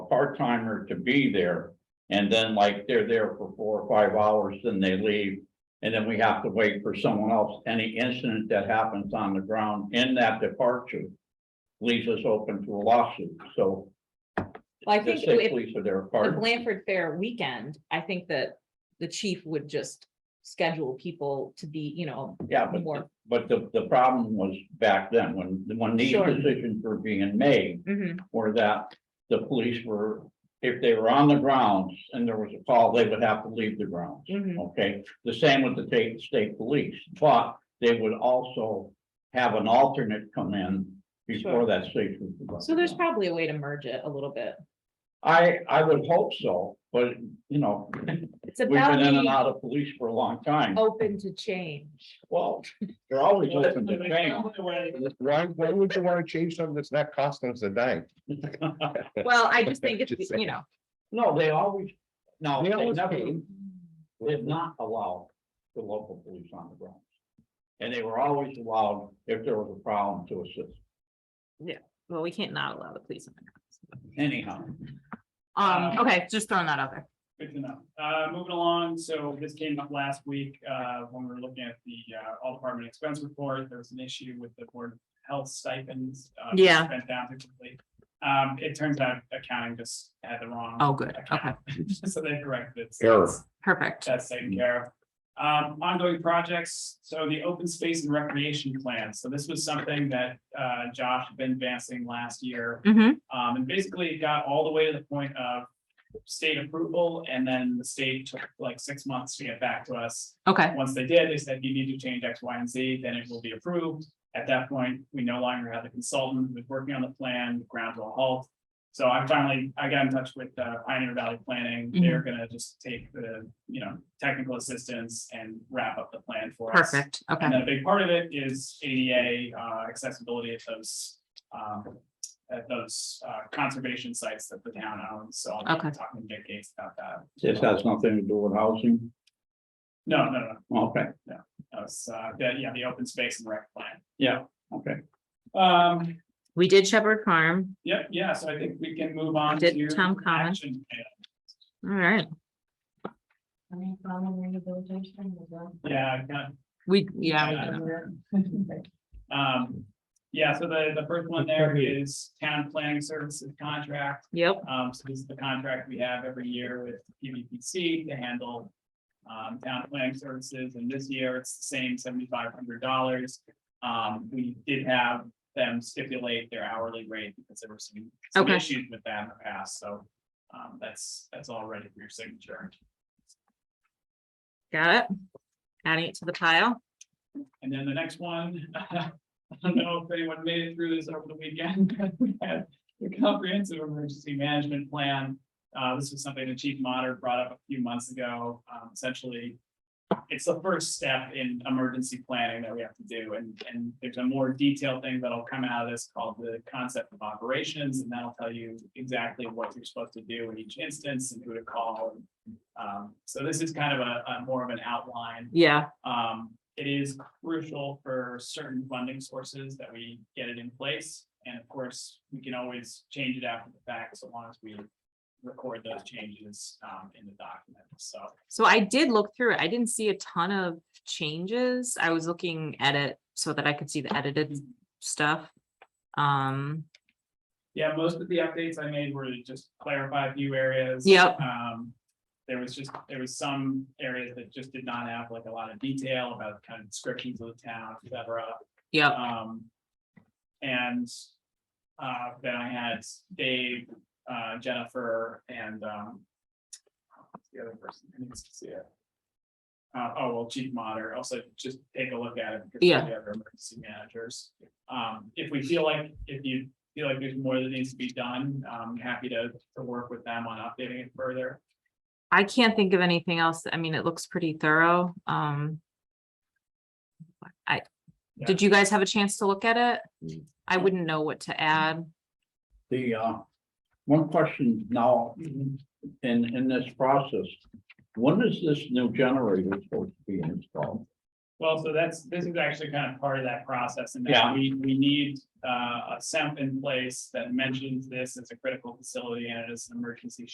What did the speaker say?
part timer to be there. And then like they're there for four or five hours, then they leave. And then we have to wait for someone else. Any incident that happens on the ground in that departure. Leaves us open to a lawsuit, so. Well, I the think state if- Police are there. the part. Blanford Fair weekend, I think that the chief would just schedule people to be, you know, Yeah, but, more. the- but the, the problem was back then, when, when these Sure. decisions were being made, mhm, were that the police were, if they were on the grounds and there was a call, they would have to leave the grounds. mhm. Okay, the same with the state, state police, but they would also have an alternate come in before Sure. that station. was- So there's probably a way to merge it a little bit. I, I would hope so, but, you know, It's we've about been in and being out of police for a long time. open to change. Well, they're always open to change. Why, why would you wanna change something that's not costing us a dime? Well, I just think it's, Just you know, No, they always, no, they They always never, came. did not allow the local police on the grounds. And they were always allowed if there was a problem to assist well, we can't not allow the police. in the anyhow. grounds. Um, okay, just throwing that out there. Good to know. Uh, moving along, so this came up last week, uh, when we were looking at the, uh, all department expense report, there was an issue with the board of health stipends. uh, Yeah. Spent down completely. Um, it turns out accounting just had the wrong. Oh, good. Okay, account. So they corrected it. Error. perfect. That's taken care of. Um, ongoing projects, so the open space and recreation plan, so this was something that, uh, Josh had been advancing last year. hmm Um, and basically it got all the way to the point of state approval and then the state took like six months to get back to us. okay, Once they did, they said, you need to change X, Y, and Z, then it will be approved. At that point, we no longer had the consultant who was working on the plan, the ground to a halt. So I'm finally, I got in touch with uh, Pioneer Valley Planning. They're gonna just take the, you know, technical assistance and wrap up the plan for us. perfect, okay. And then a big part of it is ADA uh, accessibility at those, um, at those uh, conservation sites that the town owns. So I'll be Okay. talking to Dick Gates about that. This has nothing to do with housing. No, no, no, Okay, that was, uh, the- yeah, the open space and rec plan. yeah, okay. Um, We did Shepherd Farm, yep, yeah, so I think we can move on Did to. Tom comment? action item. all right. Yeah, I kinda- We, yeah. we did. um, yeah, so the, the first one there is town planning services contract. Yep, Um, so this is the contract we have every year with PVPC to handle um, town planning services, and this year it's the same seventy-five hundred dollars. Um, we did have them stipulate their hourly rate because there were some, some Okay. issues with that in the past, so um, that's, that's all ready for your signature. got it. Adding it to the pile. And then the next one, I don't know if anyone made it through this over the weekend, but we had the comprehensive emergency management plan. Uh, this was something the chief monitor brought up a few months ago, um, essentially. It's the first step in emergency planning that we have to do, and, and there's a more detailed thing that'll come out of this called the concept of operations, and that'll tell you exactly what you're supposed to do in each instance and who to call. Um, so this is kind of a, a more of an outline Yeah, um, it is crucial for certain funding sources that we get it in place. And of course, we can always change it after the fact, so long as we record those changes, um, in the document, so. so I did look through it. I didn't see a ton of changes. I was looking at it so that I could see the edited stuff. Um, Yeah, most of the updates I made were to just clarify a few areas. Yep. Um, there was just, there was some areas that just did not have like a lot of detail about kind of descriptions of the town, et cetera. yep, Um, and, uh, then I had Dave, uh, Jennifer and, um, what's the other person who needs to see it. Uh, oh, well, chief monitor, also just take a look at it. because we Yeah. have our emergency managers. Um, if we feel like, if you feel like there's more that needs to be done, I'm happy to, to work with them on updating it further. I can't think of anything else. I mean, it looks pretty thorough. Um. I, Yeah. did you guys have a chance to look at it? I wouldn't know what to add. The, uh, one question now in, in this process, when is this new generator supposed to be installed? Well, so that's, this is actually kind of part of that process and Yeah. that we, we need uh, a SEMP in place that mentions this as a critical facility and it is an emergency